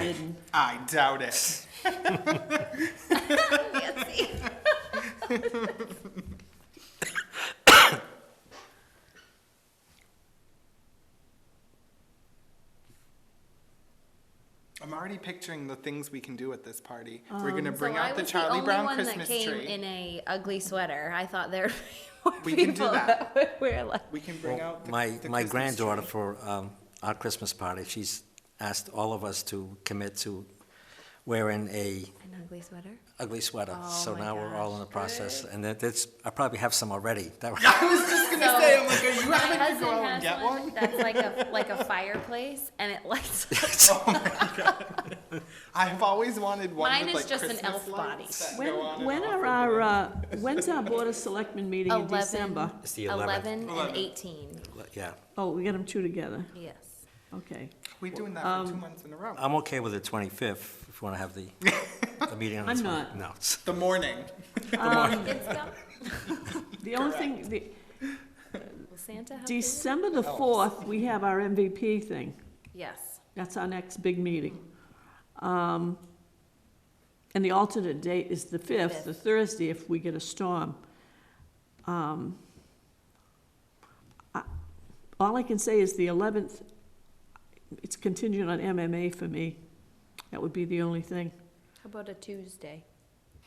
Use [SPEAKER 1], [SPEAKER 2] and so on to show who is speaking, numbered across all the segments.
[SPEAKER 1] kidding.
[SPEAKER 2] I doubt it.
[SPEAKER 1] Nancy.
[SPEAKER 2] I'm already picturing the things we can do at this party. We're gonna
[SPEAKER 1] Um, So
[SPEAKER 2] bring
[SPEAKER 1] I
[SPEAKER 2] out the
[SPEAKER 1] was
[SPEAKER 2] Charlie
[SPEAKER 1] only
[SPEAKER 2] Brown
[SPEAKER 1] one
[SPEAKER 2] Christmas
[SPEAKER 1] that came
[SPEAKER 2] tree.
[SPEAKER 1] In a ugly sweater. I thought there would be more
[SPEAKER 2] We can do
[SPEAKER 1] people
[SPEAKER 2] that.
[SPEAKER 1] would wear like.
[SPEAKER 2] we can bring
[SPEAKER 3] Well,
[SPEAKER 2] out the,
[SPEAKER 3] My,
[SPEAKER 2] the
[SPEAKER 3] my
[SPEAKER 2] Christmas
[SPEAKER 3] granddaughter
[SPEAKER 2] tree.
[SPEAKER 3] for um, our Christmas party, she's asked all of us to commit to wearing a
[SPEAKER 1] An ugly sweater.
[SPEAKER 3] ugly sweater.
[SPEAKER 1] Oh,
[SPEAKER 3] So
[SPEAKER 1] my
[SPEAKER 3] now we're all in the
[SPEAKER 1] gosh.
[SPEAKER 3] process, and that- that's, I probably have some already. That-
[SPEAKER 2] I was just gonna say, I'm like, are you
[SPEAKER 1] My
[SPEAKER 2] having to
[SPEAKER 1] husband
[SPEAKER 2] go
[SPEAKER 1] has
[SPEAKER 2] and get
[SPEAKER 1] one,
[SPEAKER 2] one?
[SPEAKER 1] that's like a like a fireplace, and it lights.
[SPEAKER 2] I have always wanted one
[SPEAKER 1] Mine
[SPEAKER 2] with
[SPEAKER 1] is
[SPEAKER 2] like
[SPEAKER 1] just an
[SPEAKER 2] Christmas
[SPEAKER 1] elf body.
[SPEAKER 2] lights that
[SPEAKER 4] When,
[SPEAKER 2] go on and
[SPEAKER 4] when
[SPEAKER 2] off
[SPEAKER 4] are
[SPEAKER 2] and
[SPEAKER 4] our,
[SPEAKER 2] on.
[SPEAKER 4] uh, when's our Board of Selectmen meeting in
[SPEAKER 1] 11.
[SPEAKER 4] December?
[SPEAKER 3] It's the 11th.
[SPEAKER 1] Eleven and
[SPEAKER 2] Eleven.
[SPEAKER 1] eighteen.
[SPEAKER 3] Yeah,
[SPEAKER 4] Oh, we got them two together,
[SPEAKER 1] Yes.
[SPEAKER 4] okay.
[SPEAKER 2] We're doing that
[SPEAKER 1] Um,
[SPEAKER 2] for two months in a row.
[SPEAKER 3] I'm okay with the 25th, if you want to have the, the meeting on the
[SPEAKER 4] I'm
[SPEAKER 3] 25th.
[SPEAKER 4] not.
[SPEAKER 3] No, it's-
[SPEAKER 2] The morning.
[SPEAKER 1] It's got
[SPEAKER 4] The only thing, the,
[SPEAKER 1] will Santa. Help you?
[SPEAKER 4] December the fourth, we have our MVP thing.
[SPEAKER 1] Yes.
[SPEAKER 4] That's our next big meeting. Um, and the alternate date is the fifth, the Thursday, if we get a storm. Um, I- All I can say is the eleventh, it's contingent on MMA for me. That would be the only thing.
[SPEAKER 1] How about a Tuesday?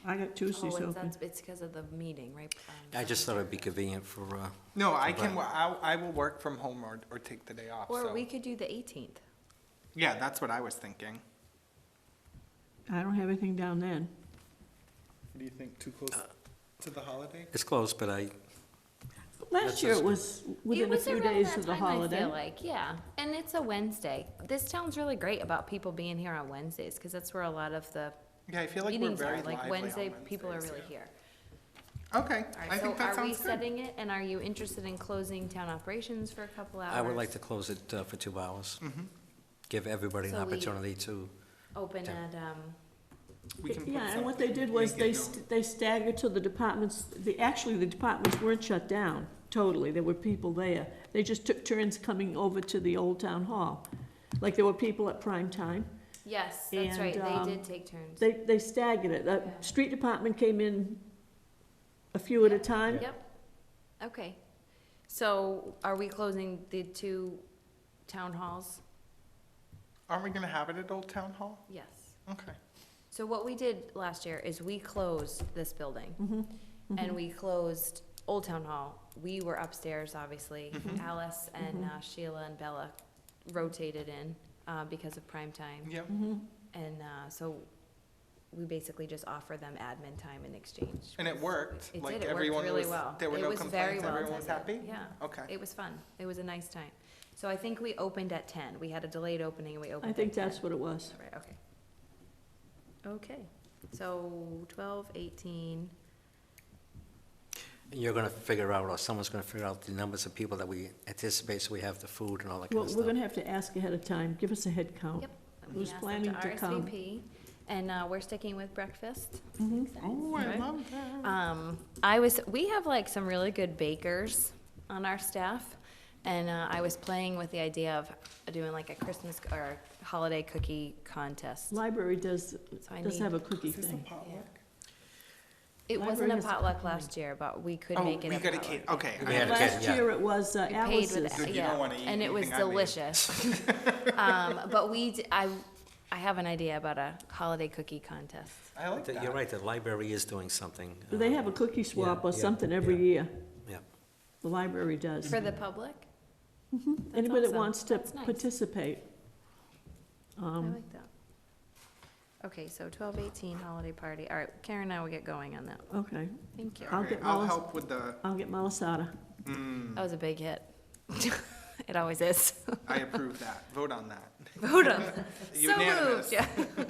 [SPEAKER 4] I got Tuesdays
[SPEAKER 1] Oh, it's,
[SPEAKER 4] open.
[SPEAKER 1] that's, it's because of the meeting, right? Um,
[SPEAKER 3] I just thought it'd be convenient for, uh,
[SPEAKER 2] No, I can, wo- I, I will work from home or, or take the day off,
[SPEAKER 1] Or
[SPEAKER 2] so.
[SPEAKER 1] we could do the eighteenth.
[SPEAKER 2] Yeah, that's what I was thinking.
[SPEAKER 4] I don't have anything down then.
[SPEAKER 2] Do you think too close to the holiday?
[SPEAKER 3] it's close, but I,
[SPEAKER 4] Last year it was within a few days of the
[SPEAKER 1] I
[SPEAKER 4] holiday.
[SPEAKER 1] feel like, yeah, and it's a Wednesday. This town's really great about people being here on Wednesdays because that's where a lot of the
[SPEAKER 2] Yeah, I feel like we're
[SPEAKER 1] meetings
[SPEAKER 2] very
[SPEAKER 1] are.
[SPEAKER 2] lively on
[SPEAKER 1] Like Wednesday, people are
[SPEAKER 2] Wednesdays,
[SPEAKER 1] really
[SPEAKER 2] yeah.
[SPEAKER 1] here.
[SPEAKER 2] Okay,
[SPEAKER 1] All right,
[SPEAKER 2] I
[SPEAKER 1] so
[SPEAKER 2] think that
[SPEAKER 1] are we
[SPEAKER 2] sounds good.
[SPEAKER 1] setting it? And are you interested in closing town operations for a couple hours?
[SPEAKER 3] I would like to close it uh, for two hours. Give everybody an
[SPEAKER 1] So we-
[SPEAKER 3] opportunity to,
[SPEAKER 1] open
[SPEAKER 3] Yeah.
[SPEAKER 1] at um.
[SPEAKER 2] We can put
[SPEAKER 4] Yeah, and what they
[SPEAKER 2] something-
[SPEAKER 4] did was
[SPEAKER 2] make it
[SPEAKER 4] they,
[SPEAKER 2] known.
[SPEAKER 4] st- they staggered till the departments, the, actually, the departments weren't shut down totally. There were people there. They just took turns coming over to the old town hall. Like there were people at prime time.
[SPEAKER 1] Yes, that's
[SPEAKER 4] And,
[SPEAKER 1] right.
[SPEAKER 4] um,
[SPEAKER 1] they did take turns.
[SPEAKER 4] They, they staggered it. The street department came in a few at a time.
[SPEAKER 1] Yep. Okay. So are we closing the two town halls?
[SPEAKER 2] Aren't we gonna have it at Old Town Hall?
[SPEAKER 1] Yes.
[SPEAKER 2] Okay.
[SPEAKER 1] So what we did last year is we closed this building.
[SPEAKER 4] Mm-hmm.
[SPEAKER 2] Mm-hmm.
[SPEAKER 1] And we closed Old Town Hall. We were upstairs, obviously.
[SPEAKER 2] Mm-hmm.
[SPEAKER 1] Alice and uh, Sheila and Bella rotated in, uh, because of prime time.
[SPEAKER 2] Yep.
[SPEAKER 4] Mm-hmm.
[SPEAKER 1] And, uh, so we basically just offered them admin time in exchange.
[SPEAKER 2] And it worked.
[SPEAKER 1] It
[SPEAKER 2] like
[SPEAKER 1] did, it
[SPEAKER 2] everyone
[SPEAKER 1] worked really
[SPEAKER 2] was,
[SPEAKER 1] well.
[SPEAKER 2] There were
[SPEAKER 1] It
[SPEAKER 2] no
[SPEAKER 1] was
[SPEAKER 2] complaints.
[SPEAKER 1] very well
[SPEAKER 2] everyone was happy.
[SPEAKER 1] attended, Yeah.
[SPEAKER 2] Okay.
[SPEAKER 1] It was fun. It was a nice time. So I think we opened at ten. We had a delayed opening and we opened
[SPEAKER 4] I
[SPEAKER 1] at
[SPEAKER 4] think
[SPEAKER 1] 10.
[SPEAKER 4] that's what it was.
[SPEAKER 1] Right, okay. Okay, so twelve, eighteen,
[SPEAKER 3] you're gonna figure out, or someone's gonna figure out the numbers of people that we anticipate, so we have the food and all that kind
[SPEAKER 4] Well,
[SPEAKER 3] of
[SPEAKER 4] we're
[SPEAKER 3] stuff.
[SPEAKER 4] gonna have to ask ahead of time. Give us a head count.
[SPEAKER 1] yep. We
[SPEAKER 4] Who's
[SPEAKER 1] asked them
[SPEAKER 4] planning to come?
[SPEAKER 1] RSVP, And, uh, we're sticking with breakfast.
[SPEAKER 2] Ooh, I
[SPEAKER 1] Right?
[SPEAKER 2] love that.
[SPEAKER 1] Um, I was, we have like some really good bakers on our staff. And uh, I was playing with the idea of doing like a Christmas or holiday cookie contest.
[SPEAKER 4] Library does,
[SPEAKER 1] So I
[SPEAKER 4] does
[SPEAKER 1] need-
[SPEAKER 4] have a cookie
[SPEAKER 2] Is this a
[SPEAKER 4] thing.
[SPEAKER 2] potluck?
[SPEAKER 1] It wasn't a
[SPEAKER 4] Library has a
[SPEAKER 1] potluck last year, but we could
[SPEAKER 2] Oh,
[SPEAKER 1] make it
[SPEAKER 2] we
[SPEAKER 1] a
[SPEAKER 2] got a
[SPEAKER 1] potluck.
[SPEAKER 2] kid. Okay.
[SPEAKER 3] We
[SPEAKER 2] I-
[SPEAKER 3] had a kid,
[SPEAKER 4] Last
[SPEAKER 3] yeah.
[SPEAKER 4] year it was uh,
[SPEAKER 1] We paid
[SPEAKER 4] Alice's.
[SPEAKER 1] with,
[SPEAKER 2] you don't
[SPEAKER 1] yeah,
[SPEAKER 2] wanna eat
[SPEAKER 1] and it was
[SPEAKER 2] anything I made.
[SPEAKER 1] delicious. Um, but we, d- I, I have an idea about a holiday cookie contest.
[SPEAKER 2] I like
[SPEAKER 3] The- You're
[SPEAKER 2] that.
[SPEAKER 3] right, the library is doing something.
[SPEAKER 4] Do They
[SPEAKER 3] uh,
[SPEAKER 4] have a cookie swap or
[SPEAKER 3] yeah,
[SPEAKER 4] something
[SPEAKER 3] yeah.
[SPEAKER 4] every year.
[SPEAKER 3] Yeah,
[SPEAKER 4] The library does.
[SPEAKER 1] For the public? That's
[SPEAKER 4] Anybody that
[SPEAKER 1] awesome.
[SPEAKER 4] wants to
[SPEAKER 1] That's nice.
[SPEAKER 4] participate.
[SPEAKER 1] I
[SPEAKER 4] Um,
[SPEAKER 1] like that. Okay, so twelve eighteen holiday party. All right, Karen and I will get going on that.
[SPEAKER 4] Okay,
[SPEAKER 1] Thank you.
[SPEAKER 2] All
[SPEAKER 4] I'll
[SPEAKER 2] right,
[SPEAKER 4] get
[SPEAKER 2] I'll
[SPEAKER 4] Wallace-
[SPEAKER 2] help with the,
[SPEAKER 4] I'll get malasada.
[SPEAKER 1] That was a big hit. It always is.
[SPEAKER 2] I approve that. Vote on that.
[SPEAKER 1] Vote on. So
[SPEAKER 2] Unanimous.
[SPEAKER 1] moved, yeah. All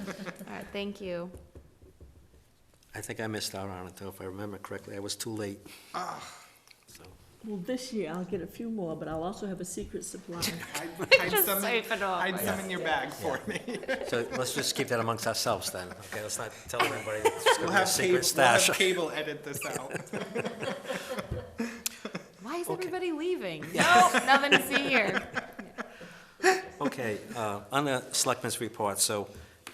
[SPEAKER 1] right, thank you.
[SPEAKER 3] I think I missed out on it, though, if I remember correctly, I was too late.
[SPEAKER 2] Ah.
[SPEAKER 3] So,
[SPEAKER 4] Well, this year I'll get a few more, but I'll also have a secret supply.
[SPEAKER 2] Hide- hide
[SPEAKER 1] Just
[SPEAKER 2] some-
[SPEAKER 1] save it all.
[SPEAKER 2] Hide some in your bag for me.
[SPEAKER 3] so let's just keep that amongst ourselves then, okay, let's not tell everybody it's gonna
[SPEAKER 2] We'll
[SPEAKER 3] be a
[SPEAKER 2] have cable,
[SPEAKER 3] secret
[SPEAKER 2] we'll have
[SPEAKER 3] stash.
[SPEAKER 2] cable edit this out.
[SPEAKER 1] Why is everybody leaving? No, nothing to see here.
[SPEAKER 3] Okay, uh, on the selectmen's report, so